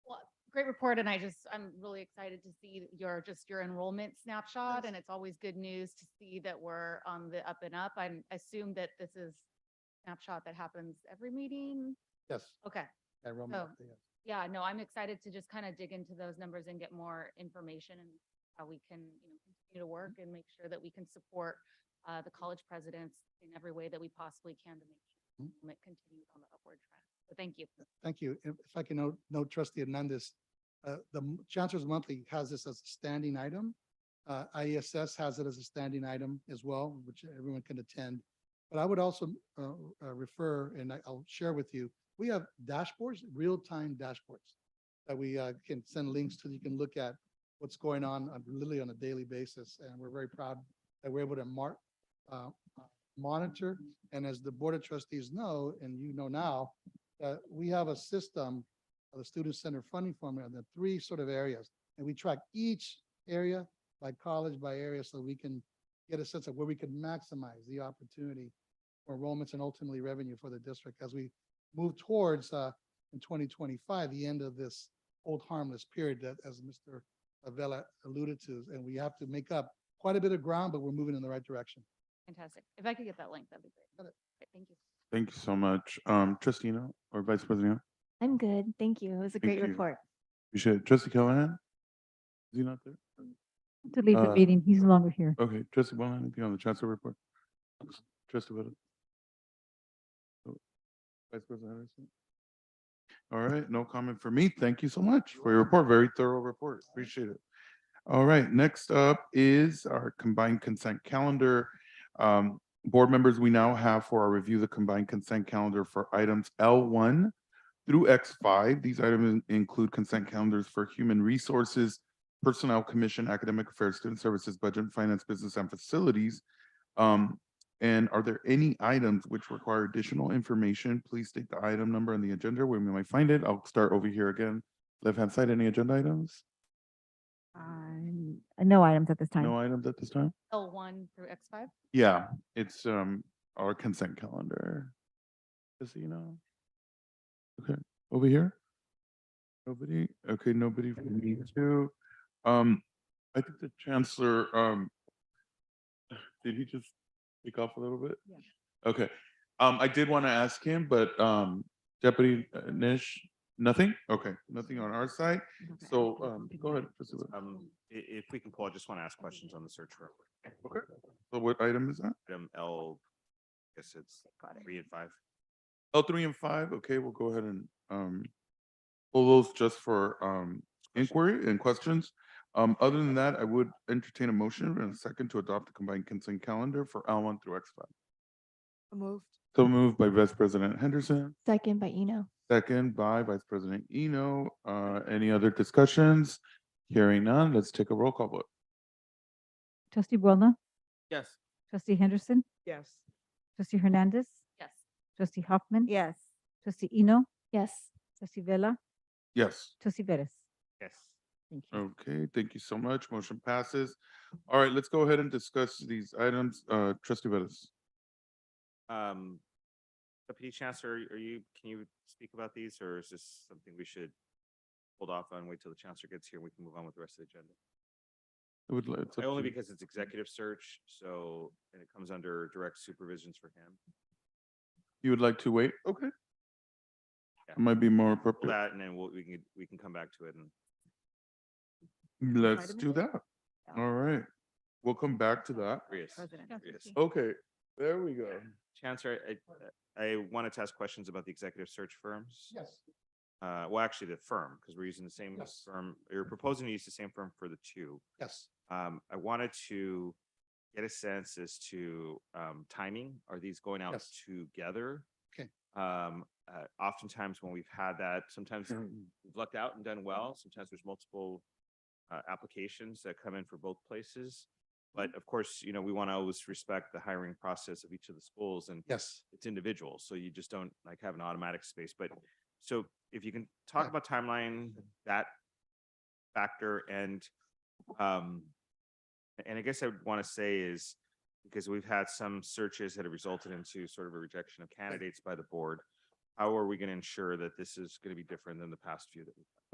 great report and I just, I'm really excited to see your, just your enrollment snapshot. And it's always good news to see that we're on the up and up. I'm assume that this is snapshot that happens every meeting. Yes. Okay. enrollment Oh. update, yes. Yeah, no, I'm excited to just kind of dig into those numbers and get more information and how we can, you know, continue to work and make sure that we can support uh, the college presidents in every way that we possibly can to make sure Mhm. enrollment continues on the upward trend. So thank you. Thank you. If if I can note, note trustee Hernandez, uh, the m- Chancellor's Monthly has this as a standing item. Uh, IESS has it as a standing item as well, which everyone can attend. But I would also, uh, uh, refer, and I- I'll share with you, we have dashboards, real-time dashboards that we, uh, can send links to, you can look at what's going on on- literally on a daily basis. And we're very proud that we're able to mark, uh, uh, monitor. And as the Board of Trustees know, and you know now, that we have a system of the Student Center Funding Formula, the three sort of areas. And we track each area by college, by area, so we can get a sense of where we can maximize the opportunity for enrollments and ultimately revenue for the district as we move towards, uh, in twenty twenty-five, the end of this old harmless period that, as Mr. Avella alluded to, and we have to make up quite a bit of ground, but we're moving in the right direction. Fantastic. If I could get that link, that'd be great. Got it. Great, Thank you. Thank you so much. Um, Trustina or Vice President, I'm good. Thank you. It was a Thank great you. report. you should, Trustee Callahan? Is he not there? To leave the Uh, meeting, he's no longer here. Okay, Trustee Boland, anything on the chancellor report? Trustee Boland? Vice President Henderson? All right, no comment for me. Thank you so much for your report. Very thorough report. Appreciate it. All right, next up is our combined consent calendar. Um, board members, we now have for our review the combined consent calendar for items L one through X five. These items include consent calendars for human resources, Personnel Commission, Academic Affairs, Student Services, Budget, and Finance, Business and Facilities. Um, and are there any items which require additional information? Please state the item number on the agenda where we might find it. I'll start over here again. Left-hand side, any agenda items? Um, uh, No items at this time. No items at this time? L one through X five? Yeah, it's, um, our consent calendar. Just so you know. Okay, over here? Nobody? Okay, nobody for me too. Um, I think the chancellor, um, did he just speak off a little bit? Yeah. Okay, um, I did want to ask him, but, um, Deputy uh, Nish, nothing? Okay, nothing on our side. So, um, go ahead. Trustee Wood. Um, i- if we can pull, I just want to ask questions on the search firm. So what item is that? Item L, I guess it's three and five. L Oh, three and five, okay, we'll go ahead and, um, pull those just for, um, inquiry and questions. Um, other than that, I would entertain a motion and a second to adopt the combined consent calendar for L one through X five. Moved. So moved by Vice President Henderson, Second by Eno. second by Vice President Eno. Uh, any other discussions? Hearing none, let's take a roll call vote. Trustee Boulna, Yes. trustee Henderson, Yes. trustee Hernandez, Yes. trustee Hoffman. Yes. Trustee Eno, Yes. trustee Vella, Yes. trustee Veras. Yes. Thank you. Okay, thank you so much. Motion passes. All right, let's go ahead and discuss these items. Uh, trustee Bettis. Um, Deputy Chancellor, are you, can you speak about these or is this something we should hold off on, wait till the chancellor gets here, and we can move on with the rest of the agenda? I would like- it's up I- Only to you. because it's executive search, so, and it comes under direct supervisions for him. You would like to wait? Okay. Yeah. That Might be more Pull appropriate. That and then we'll, we can, we can come back to it and Let's Item do A? that. Yeah. All right. We'll come back to that. Chris. President. Yes. Okay, there we go. Chancellor, I, I wanted to ask questions about the executive search firms. Yes. Uh, well, actually the firm, because we're using the same Yes. firm, you're proposing to use the same firm for the two. Yes. Um, I wanted to get a sense as to, um, timing. Are these going out Yes. together? Okay. Um, uh, oftentimes when we've had that, sometimes Mm-hmm. we've lucked out and done well. Sometimes there's multiple, uh, applications that come in for both places. Mm-hmm. But of course, you know, we want to always respect the hiring process of each of the schools and Yes. it's individual, so you just don't like have an automatic space, but so if you can talk about timeline, that factor and um and I guess I would want to say is because we've had some searches that have resulted into sort of a rejection of candidates by the board. How are we going to ensure that this is going to be different than the past few that we've had?